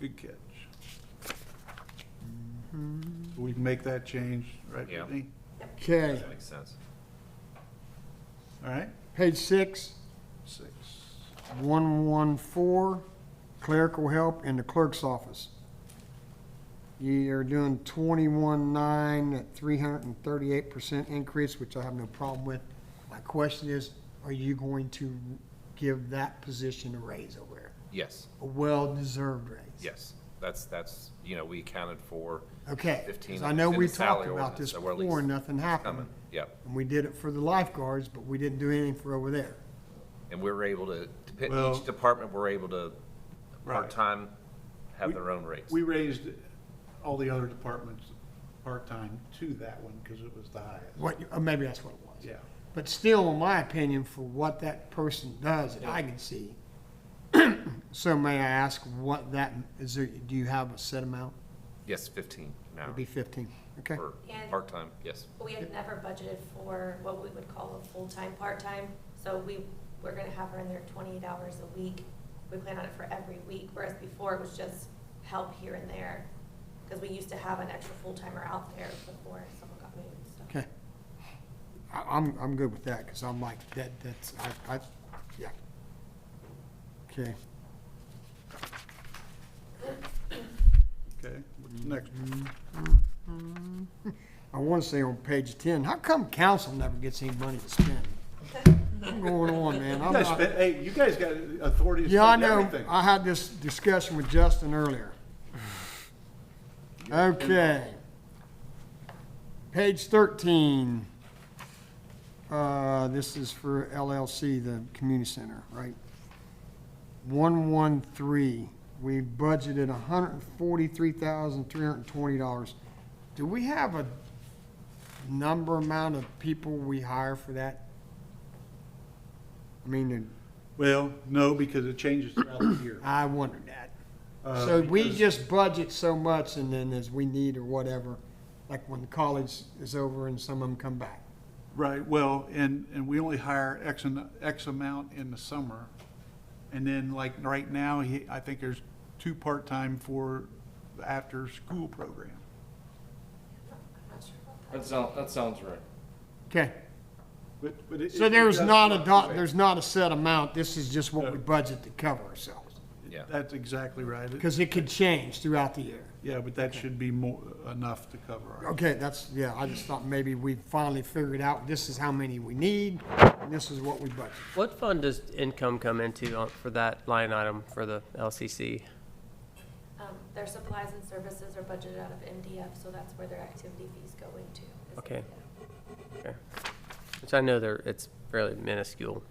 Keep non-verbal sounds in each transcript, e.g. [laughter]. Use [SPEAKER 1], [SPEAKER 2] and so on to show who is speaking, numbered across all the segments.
[SPEAKER 1] Good catch. Mm-hmm. We can make that change, right,
[SPEAKER 2] Yeah.
[SPEAKER 1] Brittany?
[SPEAKER 3] Okay,
[SPEAKER 2] That makes sense.
[SPEAKER 1] All right,
[SPEAKER 3] page six,
[SPEAKER 1] six.
[SPEAKER 3] one-one-four, clerical help in the clerk's office. You're doing twenty-one-nine at three hundred and thirty-eight percent increase, which I have no problem with. My question is, are you going to give that position a raise over there?
[SPEAKER 2] Yes,
[SPEAKER 3] A well-deserved raise?
[SPEAKER 2] yes. That's, that's, you know, we accounted for
[SPEAKER 3] Okay,
[SPEAKER 2] 15
[SPEAKER 3] because I know
[SPEAKER 2] in
[SPEAKER 3] we
[SPEAKER 2] the salary
[SPEAKER 3] talked about
[SPEAKER 2] ordinance,
[SPEAKER 3] this
[SPEAKER 2] so we're at
[SPEAKER 3] before and
[SPEAKER 2] least
[SPEAKER 3] nothing happened.
[SPEAKER 2] coming, yep.
[SPEAKER 3] And we did it for the lifeguards, but we didn't do anything for over there.
[SPEAKER 2] And we were able to, to pick-
[SPEAKER 1] Well-
[SPEAKER 2] each department, we're able to,
[SPEAKER 1] Right.
[SPEAKER 2] part-time, have
[SPEAKER 1] We-
[SPEAKER 2] their own rates.
[SPEAKER 1] We raised all the other departments part-time to that one because it was the highest.
[SPEAKER 3] What, you- or maybe that's what it was.
[SPEAKER 1] Yeah.
[SPEAKER 3] But still, in my opinion, for what that person does that I can see, [clears throat] so may I ask what that, is there, do you have a set amount?
[SPEAKER 2] Yes, fifteen an
[SPEAKER 3] It'd be
[SPEAKER 2] hour
[SPEAKER 3] fifteen, okay?
[SPEAKER 2] for
[SPEAKER 4] And-
[SPEAKER 2] part-time, yes.
[SPEAKER 4] We had never budgeted for what we would call a full-time, part-time, so we, we're gonna have her in there twenty-eight hours a week. We plan on it for every week, whereas before it was just help here and there, because we used to have an extra full-timer out there before someone got moved, so.
[SPEAKER 3] Okay. I, I'm, I'm good with that, because I'm like, that, that's, I, I, yeah. Okay,
[SPEAKER 1] Okay, what's next?
[SPEAKER 3] Mm-hmm. I want to say on page ten, how come council never gets any money to spend? What's going on, man?
[SPEAKER 1] You
[SPEAKER 3] I'm
[SPEAKER 1] guys
[SPEAKER 3] not-
[SPEAKER 1] spent, hey, you guys got authority to
[SPEAKER 3] Yeah, I
[SPEAKER 1] spend
[SPEAKER 3] know.
[SPEAKER 1] everything.
[SPEAKER 3] I had this discussion with Justin earlier. Okay. Page thirteen. Uh, this is for LLC, the community center, right? One, one, three. We budgeted hundred and forty-three thousand, three hundred and twenty dollars. Do we have a number amount of people we hire for that? I mean,
[SPEAKER 1] Well, no, because it changes throughout the year.
[SPEAKER 3] I wondered that.
[SPEAKER 1] Uh,
[SPEAKER 3] So we
[SPEAKER 1] because-
[SPEAKER 3] just budget so much and then as we need or whatever, like when college is over and some of them come back.
[SPEAKER 1] Right, well, and, and we only hire X, an- X amount in the summer. And then like right now, he, I think there's two part-time for the after-school program.
[SPEAKER 4] I'm not sure about that.
[SPEAKER 5] That sounds, that sounds right.
[SPEAKER 3] Okay,
[SPEAKER 1] But, but it.
[SPEAKER 3] so
[SPEAKER 1] it
[SPEAKER 3] there's
[SPEAKER 1] does
[SPEAKER 3] not a, do-
[SPEAKER 1] fluctuate.
[SPEAKER 3] there's not a set amount, this is just what we budget to cover ourselves.
[SPEAKER 2] Yeah.
[SPEAKER 1] That's exactly right. It-
[SPEAKER 3] Because it could change throughout the year.
[SPEAKER 1] Yeah, but that should be more, enough to cover our.
[SPEAKER 3] Okay, that's, yeah, I just thought maybe we finally figured out this is how many we need, and this is what we budget.
[SPEAKER 6] What fund does income come into on- for that line item for the LCC?
[SPEAKER 4] Um, their supplies and services are budgeted out of MDF, so that's where their activity fees go into. is
[SPEAKER 6] Okay.
[SPEAKER 4] MDF.
[SPEAKER 6] Okay. Which I know there, it's fairly minuscule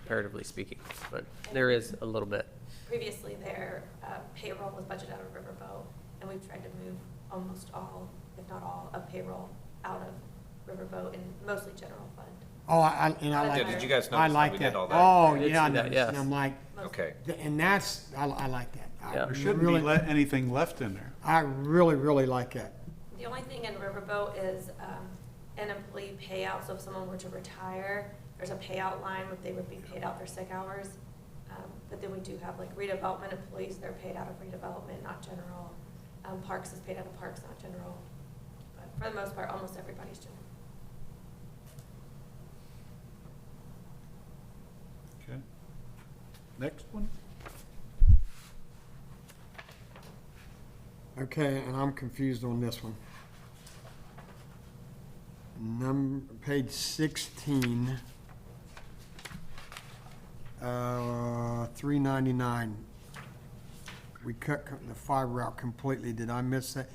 [SPEAKER 6] comparatively speaking, but there is a little bit.
[SPEAKER 4] Previously, their uh, payroll was budgeted out of Riverboat, and we've tried to move almost all, if not all, of payroll out of Riverboat and mostly general fund.
[SPEAKER 3] Oh, I, I- and I
[SPEAKER 4] Yeah,
[SPEAKER 3] like that.
[SPEAKER 4] did you
[SPEAKER 2] guys
[SPEAKER 3] I
[SPEAKER 2] notice that
[SPEAKER 3] like
[SPEAKER 2] we did all that?
[SPEAKER 3] Oh,
[SPEAKER 6] I did
[SPEAKER 3] yeah, I
[SPEAKER 6] see that,
[SPEAKER 3] noticed, and
[SPEAKER 6] yes.
[SPEAKER 3] I'm like,
[SPEAKER 4] Mostly.
[SPEAKER 2] Okay,
[SPEAKER 3] and that's, I, I like that. I
[SPEAKER 6] Yeah.
[SPEAKER 1] There shouldn't be
[SPEAKER 3] really-
[SPEAKER 1] le- anything left in there.
[SPEAKER 3] I really, really like that.
[SPEAKER 4] The only thing in Riverboat is um, an employee payout, so if someone were to retire, there's a payout line where they would be paid out their sick hours. Um, But then we do have like redevelopment employees, they're paid out of redevelopment, not general. Um, Parks is paid out of parks, not general. But for the most part, almost everybody's general.
[SPEAKER 1] Okay. Next one?
[SPEAKER 3] Okay, and I'm confused on this one. Number, page sixteen. Uh, three ninety-nine. We cut co- the fiber out completely, did I miss that?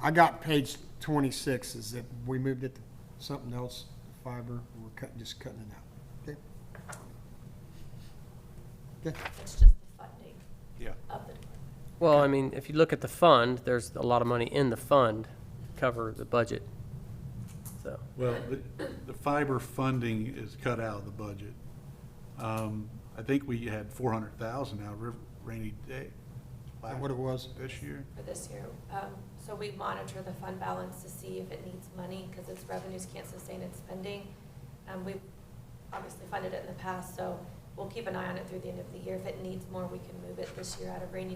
[SPEAKER 3] I got page twenty-six, is that we moved it to something else, fiber, we're cutting, just cutting it out. Okay. Okay.
[SPEAKER 4] It's just the funding
[SPEAKER 1] Yeah.
[SPEAKER 4] of the department.
[SPEAKER 6] Well, I mean, if you look at the fund, there's a lot of money in the fund to cover the budget. So,
[SPEAKER 1] Well, the, the fiber funding is cut out of the budget. Um, I think we had four hundred thousand out of riv- rainy day.
[SPEAKER 3] Is that what it was?
[SPEAKER 1] This year.
[SPEAKER 4] for this year. Um, So we monitor the fund balance to see if it needs money, because its revenues can't sustain its spending. Um, We've obviously funded it in the past, so we'll keep an eye on it through the end of the year. If it needs more, we can move it this year out of rainy day